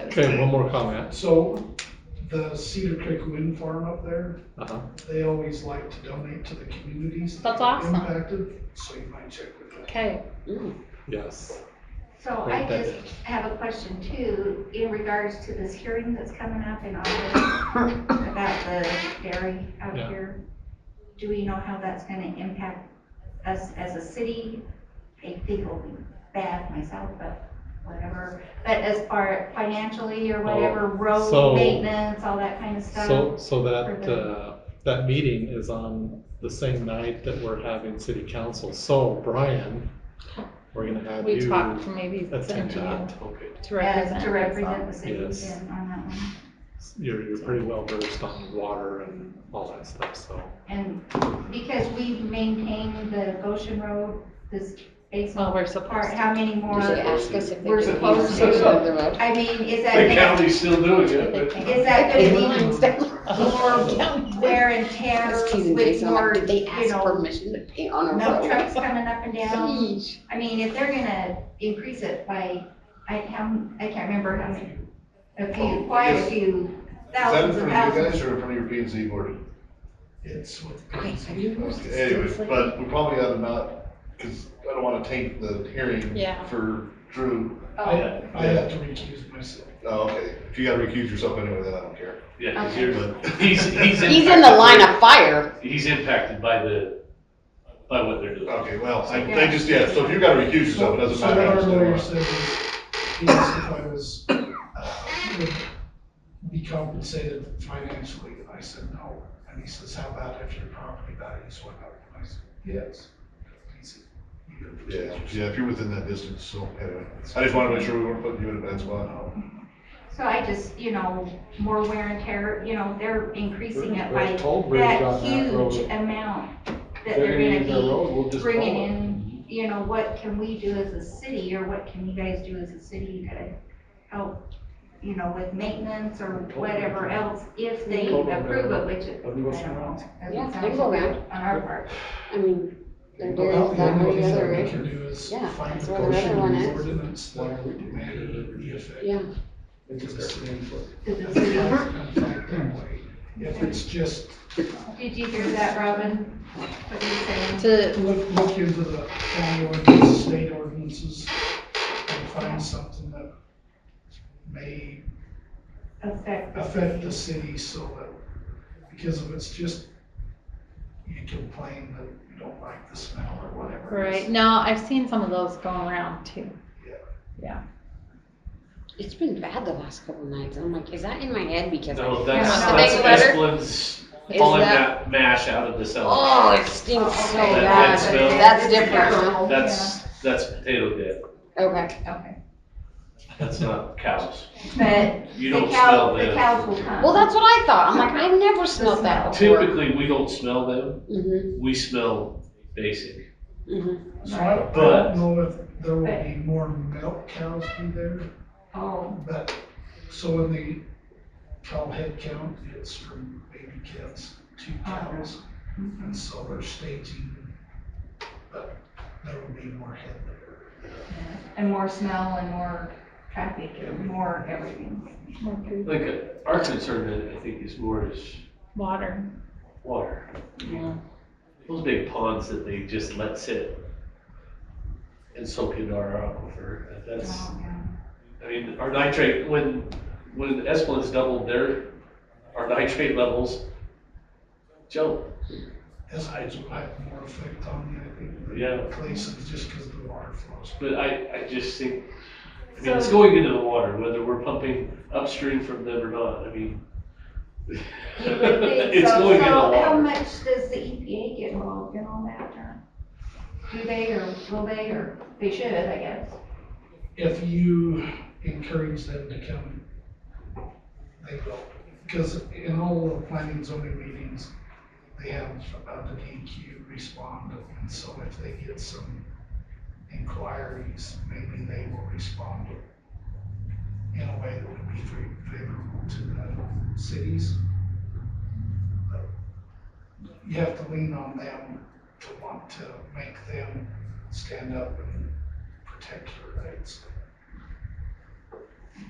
Okay, one more comment. So the Cedar Creek Wind Farm up there, Uh-huh. they always like to donate to the communities. that That's are awesome. Impacted, so you might check with them. Okay, ooh, Yes. So I Right, just that- have a question too, in regards to this hearing that's coming up in August about the dairy out Yeah. here. Do we know how that's gonna impact us as a city? I think it'll be bad myself, but whatever. But as far financially or whatever, Oh, so- road maintenance, all that kind of stuff? So, so that, for the- uh, that meeting is on the same night that we're having city council. So Brian, we're gonna have we you talked to maybe attend send you that. Okay. to As represent. uh, to represent the us city Yes. and on that one. You're, you're pretty well versed on water and all that stuff, so. And because we've maintained the Goshen Road, this all. Well, basement we're part, supposed to. how many more? They ask us if they We're can supposed use to. it on the road. I mean, is that The gonna, county's still doing it, but. is Is that gonna Lines down. be more wear and tear That's Keith and with Jason, more, like, did they you ask know, permission to pay on our no road? trucks coming up and down? Sheesh. I mean, if they're gonna increase it by, I, how, I can't remember how many, a few, quite a few Is that in thousands and front of you thousands. guys or in front of your P and Z board? It's with. Okay, so you were Okay, Anyways, seriously- but we probably ought to not, because I don't want to taint the hearing Yeah. for Drew. I, oh. I have to recuse myself. Oh, okay, if you gotta recuse yourself anyway, then I don't care. Yeah, 'cause Okay. you're the- he's, he's. He's in the line lineup. of fire. He's impacted by the, by what they're doing. Okay, well, I, they just, yeah, so if you gotta recuse yourself, it doesn't So what our lawyer matter. said is, he asked if I was, uh, would be compensated financially, and I said no. And he says, how about if your property values went up? And I said, yes. He said, "You gotta Yeah, recuse yeah, if you're within that distance, so anyway, I just wanted to make sure we weren't putting you in a bad spot. So I just, you know, more wear and tear, you know, they're increasing it by There's a toll bridge that on that road. huge amount that They're gonna use our be road, we'll just follow bringing it. in, you know, what can we do as a city, or what can you guys do as a city to help, you know, with maintenance or whatever else, if they Totally. approve it, which it, I don't Let me go know. Yeah, Doesn't they sound go like around. it on our part. I mean, they're Well, about doing the that only or the place other that we road. can do is Yeah, find that's the where the other portion one of the is. ordinance Why that are we doing had the effect. Yeah, It's just our thing for- To the That's why city. it's gonna fight that way. If it's just, Did you hear that, Robin? What you saying? To, look, look into the county ordinance, state ordinances, and find something that may Affect affect the city so that, because if it's just, you complain that you don't like the smell or whatever. it is. right, no, I've seen some of those going around too. it's been bad the last couple nights. I'm like, is that in my head because No, I? that's, Yeah, that's big letter. Esplin's Is pulling that- that mash out of the cellar. Oh, it stinks so Okay. That- bad. that's- smell. That's different, huh? That's, that's potato dip. Okay, Yeah, Okay. That's not cows. But You the don't smell cow, the them. cows will come. well, that's what I thought. I'm like, I've never smelled that before. Typically, we don't smell them. Mhm, We smell basic. mhm. So I don't- I But- don't know if there will be more milk cows be there. Oh, But, so when they call head count, it's from baby calves to cows, mm-hmm. and so they're staging. But there will be more head there. and more smell and more traffic and more everything. Like, uh, our concern, I- I think, is more is Water. water. Yeah. Those big ponds that they just let sit and soak into our aquifer, that's, Oh, I mean, our nitrate, when, when Esplin's doubled their, our nitrate levels jump. This is what I have more effect on me, I think. than Yeah. Places just because the water flows. But I, I just think, I mean, it's So- going into the water, whether we're pumping upstream from them or not, I mean. You would think It's so. going in the So How water. much does the EPA get involved in all that? or Do they or will they or they should, I guess. If you encourage them to come, they will. Because in all the planning and zoning meetings, they have about the DQ respond, and so if they get some inquiries, maybe they will respond in a way that would be fa- favorable to the cities. But You have to lean on them to want to make them stand up and protect your rights.